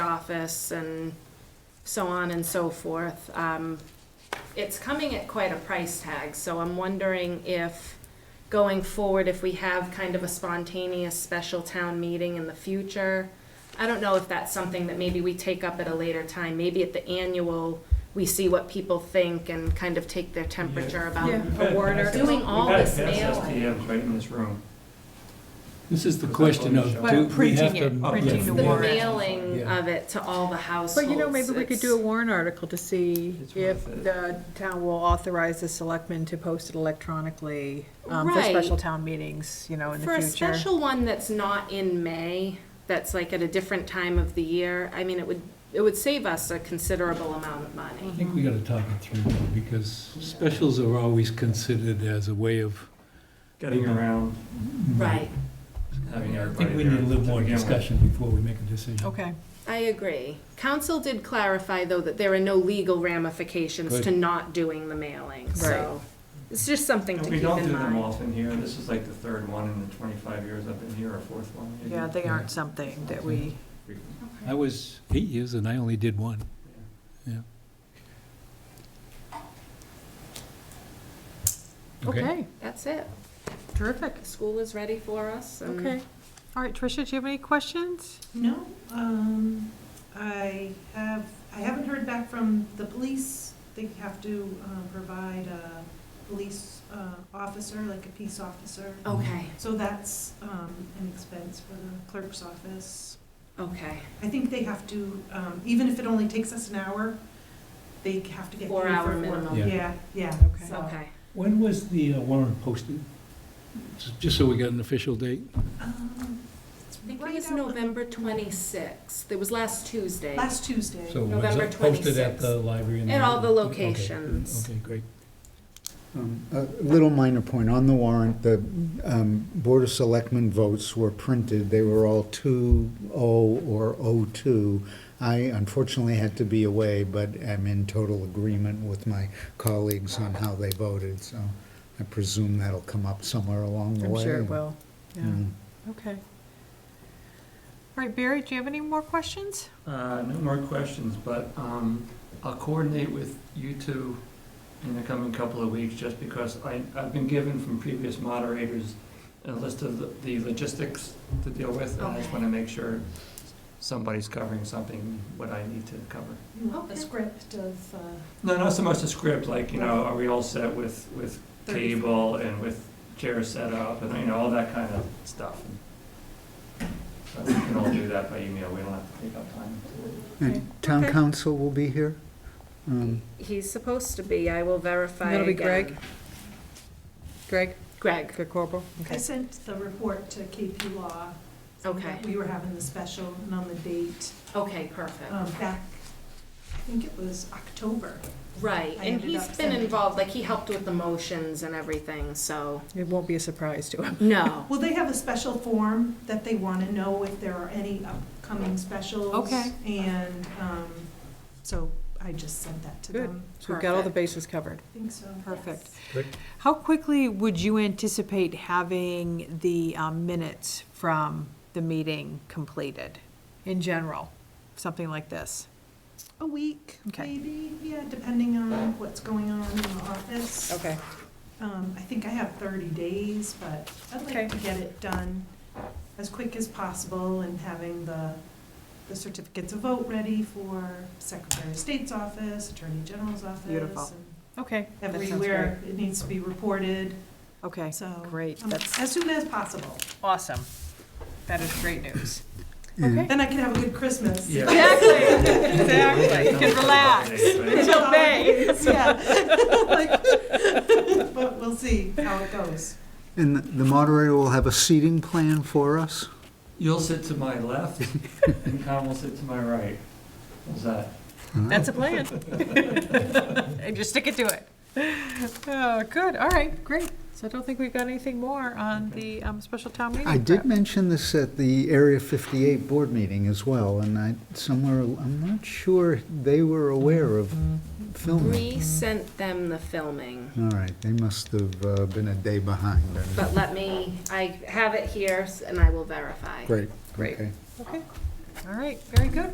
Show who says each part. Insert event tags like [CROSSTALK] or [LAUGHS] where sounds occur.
Speaker 1: office and so on and so forth. Um, It's coming at quite a price tag, so I'm wondering if, going forward, if we have kind of a spontaneous special town meeting in the future. I don't know if that's something that maybe we take up at a later time, maybe at the annual, we see what people think and kind of take their temperature about
Speaker 2: Yeah.
Speaker 3: We've had
Speaker 2: A word
Speaker 3: past-
Speaker 2: or-
Speaker 1: um, Doing all this
Speaker 3: We've
Speaker 1: mail.
Speaker 3: had past STMs right in this room.
Speaker 4: This is the question of,
Speaker 3: Well,
Speaker 4: do we have
Speaker 5: printing
Speaker 4: to?
Speaker 5: it,
Speaker 4: yeah,
Speaker 5: printing
Speaker 1: The
Speaker 5: the warrant.
Speaker 1: mailing
Speaker 4: Yeah.
Speaker 1: of it to all the households.
Speaker 5: But you know, maybe we could do a warrant article to see
Speaker 3: It's
Speaker 5: if
Speaker 3: worth it.
Speaker 5: the town will authorize the selectmen to post it electronically um, for
Speaker 1: Right.
Speaker 5: special town meetings, you know, in
Speaker 1: For
Speaker 5: the
Speaker 1: a
Speaker 5: future.
Speaker 1: special one that's not in May, that's like at a different time of the year, I mean, it would, it would save us a considerable amount of
Speaker 4: I
Speaker 1: money.
Speaker 4: think we gotta talk it through, though, because specials are always considered as a way of.
Speaker 3: Getting around,
Speaker 1: Right,
Speaker 3: having
Speaker 4: I
Speaker 3: everybody there.
Speaker 4: think we need a little more
Speaker 3: to begin with.
Speaker 4: discussion before we make a decision.
Speaker 5: Okay,
Speaker 1: I agree. Council did clarify, though, that there are no legal ramifications to
Speaker 4: Good.
Speaker 1: not doing the mailing, so. It's just something
Speaker 3: And
Speaker 1: to
Speaker 3: We
Speaker 1: keep
Speaker 3: don't do
Speaker 1: in
Speaker 3: them
Speaker 1: mind.
Speaker 3: often here. This is like the third one in the 25 years I've been here, or fourth one. maybe.
Speaker 5: yeah, they aren't something that we,
Speaker 4: I was eight years and I only did one.
Speaker 5: okay,
Speaker 1: That's it.
Speaker 5: terrific,
Speaker 1: School is ready for us and-
Speaker 5: okay. All right, Tricia, do you have any questions?
Speaker 6: No, um, I have, I haven't heard back from the police. They have to, uh, provide a police, uh, officer, like a peace officer.
Speaker 1: Okay,
Speaker 6: So that's, um, an expense for the clerk's office.
Speaker 1: okay.
Speaker 6: I think they have to, um, even if it only takes us an hour, they have to get.
Speaker 1: Four
Speaker 6: paid for
Speaker 1: hour
Speaker 6: four-
Speaker 1: minimum.
Speaker 4: Yeah.
Speaker 6: Yeah, yeah.
Speaker 5: Okay.
Speaker 6: So,
Speaker 1: Okay.
Speaker 4: When was the uh, warrant posted? Just- Just so we got an official date?
Speaker 6: um, it's
Speaker 1: I think it
Speaker 6: right
Speaker 1: was
Speaker 6: out-
Speaker 1: November 26th. It was last Tuesday.
Speaker 6: Last Tuesday.
Speaker 4: So was
Speaker 1: November
Speaker 4: it posted at the library? and
Speaker 1: At all the
Speaker 4: okay,
Speaker 1: locations.
Speaker 4: Okay, great.
Speaker 7: Um, A little minor point, on the warrant, the um, Board of Selectmen votes were printed, they were all 2-0 or 0-2. I unfortunately had to be away, but am in total agreement with my colleagues on how they voted, so I presume that'll come up somewhere along the
Speaker 5: I'm
Speaker 7: way.
Speaker 5: sure it will, yeah,
Speaker 7: Mm.
Speaker 5: okay. All right, Barry, do you have any more questions?
Speaker 3: Uh, No more questions, but um, I'll coordinate with you two in the coming couple of weeks, just because I- I've been given from previous moderators a list of the- the logistics to deal with, and I just
Speaker 1: Okay.
Speaker 3: want to make sure somebody's covering something, what I need to cover.
Speaker 6: You want the
Speaker 1: Okay.
Speaker 6: script of, uh,
Speaker 3: No, not so much the script, like, you know, are we all set with, with
Speaker 6: thirty.
Speaker 3: cable and with chair setup, and, you know, all that kind of stuff. So we can all do that by email, we don't have to take up time to
Speaker 5: Okay.
Speaker 7: And town
Speaker 5: Okay.
Speaker 7: council will be here? Um,
Speaker 1: He's supposed to be, I will verify
Speaker 5: That'll be
Speaker 1: again.
Speaker 5: Greg? Greg,
Speaker 1: Greg,
Speaker 5: Greg Corporal,
Speaker 6: I
Speaker 5: okay.
Speaker 6: sent the report to KP Law. saying
Speaker 1: Okay.
Speaker 6: that We were having the special and on the date,
Speaker 1: okay, perfect,
Speaker 6: um, back, I think it was October.
Speaker 1: right,
Speaker 6: I
Speaker 1: and
Speaker 6: ended
Speaker 1: he's
Speaker 6: up
Speaker 1: been
Speaker 6: sending-
Speaker 1: involved, like, he helped with the motions and everything, so,
Speaker 5: It won't be a surprise to him.
Speaker 1: no,
Speaker 6: Well, they have a special form that they want to know if there are any upcoming specials.
Speaker 5: Okay.
Speaker 6: And, um, so I just sent that to
Speaker 5: Good.
Speaker 6: them.
Speaker 5: So we've got all the
Speaker 1: Perfect.
Speaker 5: bases covered.
Speaker 6: I think so.
Speaker 5: Perfect.
Speaker 4: Great.
Speaker 5: How quickly would you anticipate having the um, minutes from the meeting completed in general? Something like this?
Speaker 6: A week,
Speaker 5: Okay.
Speaker 6: maybe, yeah, depending on what's going on in the office.
Speaker 5: Okay.
Speaker 6: Um, I think I have thirty days, but I'd
Speaker 5: Okay.
Speaker 6: like to get it done as quick as possible and having the, the certificates of vote ready for Secretary of State's office, Attorney General's office.
Speaker 5: Beautiful.
Speaker 6: and
Speaker 5: Okay. that sounds
Speaker 6: Everywhere it needs to be reported,
Speaker 5: great. Okay,
Speaker 6: so.
Speaker 5: great.
Speaker 6: um,
Speaker 5: That's
Speaker 6: As soon as possible.
Speaker 5: awesome. That is great news.
Speaker 7: and
Speaker 5: Okay.
Speaker 6: Then I can have a good Christmas.
Speaker 3: Yeah.
Speaker 5: Exactly,
Speaker 3: [LAUGHS]
Speaker 5: exactly. You can relax. [LAUGHS] Until May.
Speaker 6: [LAUGHS] Yeah. Like, But we'll see how it goes.
Speaker 7: And the moderator will have a seating plan for us?
Speaker 3: You'll sit to my left, and Con will sit to my right. How's that?
Speaker 5: That's a plan. [LAUGHS] And just stick it to it. Oh, good, all right, great. So I don't think we've got anything more on the um, special town meeting.
Speaker 7: I
Speaker 5: prep.
Speaker 7: did mention this at the Area 58 board meeting as well, and I, somewhere, I'm not sure they were aware of filming.
Speaker 1: Bree sent them the filming,
Speaker 7: All right, they must have uh, been a day behind.
Speaker 1: but let me, I have it here, s- and I will verify.
Speaker 7: Great.
Speaker 5: Great.
Speaker 7: okay.
Speaker 5: Okay, all right, very good.